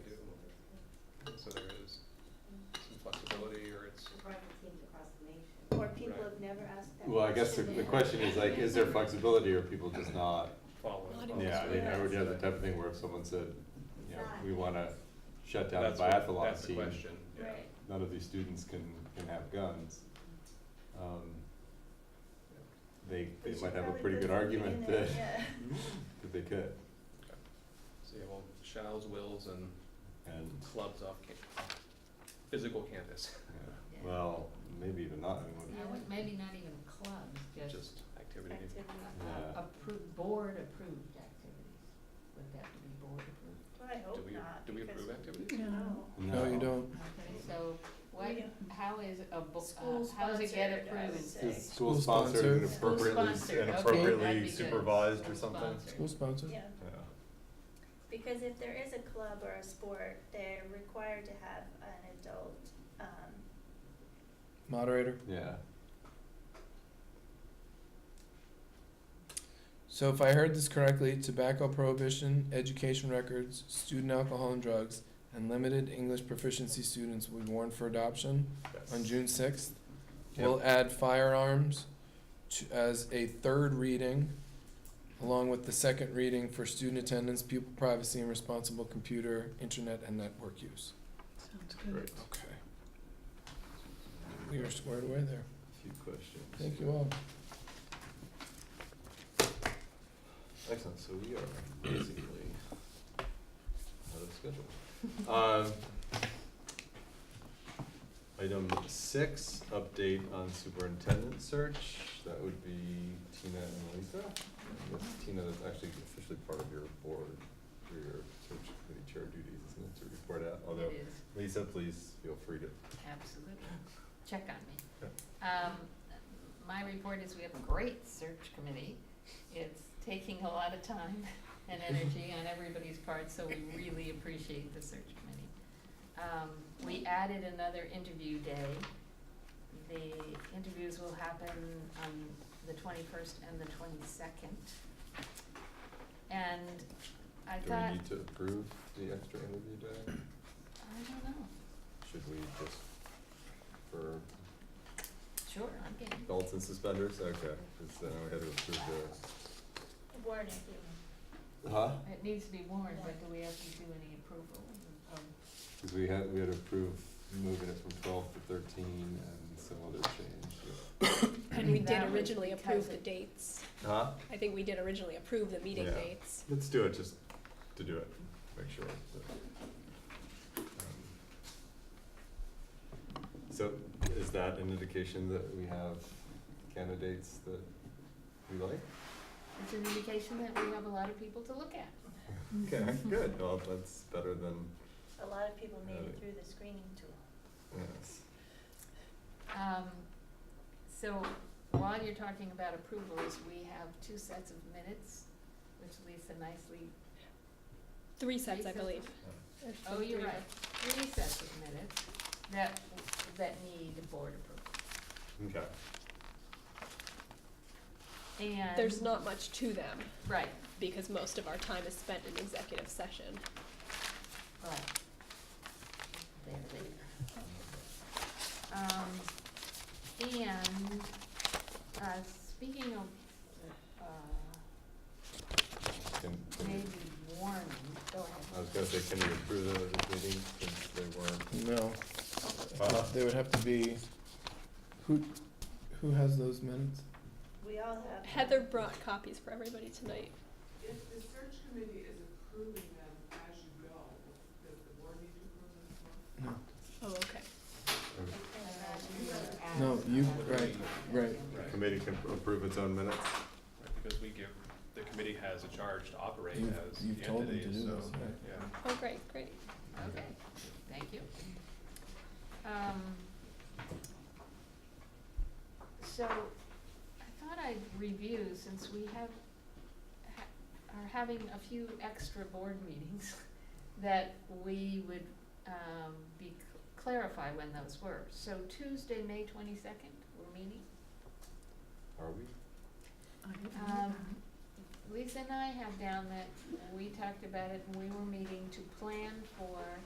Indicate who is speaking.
Speaker 1: I guess the, the question is like, is there flexibility or people just not?
Speaker 2: Following.
Speaker 1: Yeah, I mean, I would have the type of thing where if someone said, you know, we wanna shut down the
Speaker 2: That's what-
Speaker 1: biathlon
Speaker 2: That's the
Speaker 1: team,
Speaker 2: question, yeah.
Speaker 3: Right.
Speaker 1: none of these students can, can have guns. Um, They,
Speaker 3: We
Speaker 1: they
Speaker 3: should
Speaker 1: might have a
Speaker 3: probably
Speaker 1: pretty
Speaker 3: put
Speaker 1: good
Speaker 3: something in
Speaker 1: argument
Speaker 3: there,
Speaker 1: that,
Speaker 3: yeah.
Speaker 1: that they could,
Speaker 2: So you have all shalls, wills, and
Speaker 1: and,
Speaker 2: clubs off ca- physical campus,
Speaker 1: yeah.
Speaker 3: Yeah.
Speaker 1: well, maybe even not, I mean, what-
Speaker 4: I would- Maybe not even clubs, just
Speaker 2: just activity.
Speaker 3: Activities.
Speaker 1: Yeah.
Speaker 4: approved, board-approved activities. Would have to be board-approved?
Speaker 3: Well, I
Speaker 2: Do
Speaker 3: hope
Speaker 2: we,
Speaker 3: not,
Speaker 2: do we
Speaker 3: because-
Speaker 2: approve activities?
Speaker 3: No.
Speaker 5: No, you don't.
Speaker 4: Okay, so what,
Speaker 3: Yeah.
Speaker 4: how is a, bo-
Speaker 3: School
Speaker 4: uh, how does it get
Speaker 3: sponsored, I
Speaker 4: approved?
Speaker 3: would say.
Speaker 1: Is school
Speaker 5: School
Speaker 1: sponsored and
Speaker 5: sponsored.
Speaker 4: School
Speaker 1: appropriately,
Speaker 4: sponsored,
Speaker 1: and
Speaker 4: okay, that'd
Speaker 1: appropriately
Speaker 4: be good.
Speaker 1: supervised or
Speaker 4: School
Speaker 1: something?
Speaker 4: sponsored.
Speaker 5: School sponsored.
Speaker 3: Yeah,
Speaker 1: Yeah.
Speaker 3: because if there is a club or a sport, they're required to have an adult, um,
Speaker 5: Moderator.
Speaker 1: Yeah,
Speaker 5: So if I heard this correctly, tobacco prohibition, education records, student alcohol and drugs, and limited English proficiency students would warrant for adoption on June sixth. We'll add firearms to, as a third reading, along with the second reading for student attendance, pupil privacy, and responsible computer, internet, and network use.
Speaker 6: Sounds
Speaker 1: great,
Speaker 6: good.
Speaker 5: Okay. We are squared away there.
Speaker 1: few questions.
Speaker 5: Thank you all.
Speaker 1: Excellent, so we are basically out of schedule. Um, Item six, update on superintendent search, that would be Tina and Lisa. I guess Tina is actually officially part of your board, for your search committee chair duties, isn't it, to report out? Although,
Speaker 4: It is.
Speaker 1: Lisa, please feel free to
Speaker 4: Absolutely. Check on me. Um, my report is we have a great search committee. It's taking a lot of time and energy on everybody's part, so we really appreciate the search committee. Um, we added another interview day. The interviews will happen on the twenty-first and the twenty-second. And I
Speaker 1: Do we
Speaker 4: thought,
Speaker 1: need to approve the extra interview day?
Speaker 4: I don't know,
Speaker 1: Should we just, for
Speaker 4: sure, I'm game.
Speaker 1: belts and suspenders, okay, because then we had to approve
Speaker 3: warning you.
Speaker 1: the. Huh?
Speaker 4: It needs to be warned, but do we have to do any approval of
Speaker 1: Because we had, we had to approve moving it from twelve to thirteen and some other change.
Speaker 6: And we did
Speaker 4: That was
Speaker 6: originally
Speaker 4: because
Speaker 6: approve the
Speaker 4: it-
Speaker 6: dates.
Speaker 1: Huh?
Speaker 6: I think we did originally approve the meeting
Speaker 1: Yeah.
Speaker 6: dates.
Speaker 1: Let's do it, just to do it, make sure. that, um, So is that an indication that we have candidates that we like?
Speaker 4: It's an indication that we have a lot of people to look at.
Speaker 1: Okay, good, well, that's better than,
Speaker 3: A lot of people made
Speaker 1: Right.
Speaker 3: it through the screening tool.
Speaker 1: yes.
Speaker 4: Um, so while you're talking about approvals, we have two sets of minutes, which Lisa nicely,
Speaker 6: Three sets,
Speaker 4: Three
Speaker 6: I
Speaker 4: sets.
Speaker 6: believe.
Speaker 4: oh,
Speaker 6: Three.
Speaker 4: you're right, three sets of minutes that, that need board approval.
Speaker 1: Okay.
Speaker 4: And.
Speaker 6: There's not much to them
Speaker 4: Right,
Speaker 6: because most of our time is spent in executive session.
Speaker 4: right. There, there. Um, and, uh, speaking of, uh,
Speaker 1: Can, can
Speaker 4: Maybe
Speaker 1: we,
Speaker 4: warning, go ahead.
Speaker 1: I was gonna say, can we approve those as meetings since they weren't?
Speaker 5: No.
Speaker 1: Uh,
Speaker 5: They would have to be, who, who has those minutes?
Speaker 3: We all have.
Speaker 6: Heather brought copies for everybody tonight.
Speaker 7: If the search committee is approving them as you go, does the board need to approve them as well?
Speaker 5: No.
Speaker 6: Oh, okay.
Speaker 5: No, you, right, right.
Speaker 2: Right.
Speaker 1: Committee can approve its own minutes?
Speaker 2: Right, Because we give, the committee has a charge to operate
Speaker 5: You've-
Speaker 2: as the
Speaker 5: you've told them to
Speaker 2: entity,
Speaker 5: do
Speaker 2: so,
Speaker 5: this, right?
Speaker 2: yeah.
Speaker 6: Oh, great, great.
Speaker 4: Okay, thank you. Um, so, I thought I'd review, since we have, ha- are having a few extra board meetings, that we would, um, be, clarify when those were. So Tuesday, May twenty-second, we're meeting.
Speaker 1: Are we?
Speaker 4: Um, Lisa and I have down that, we talked about it, and we were meeting to plan for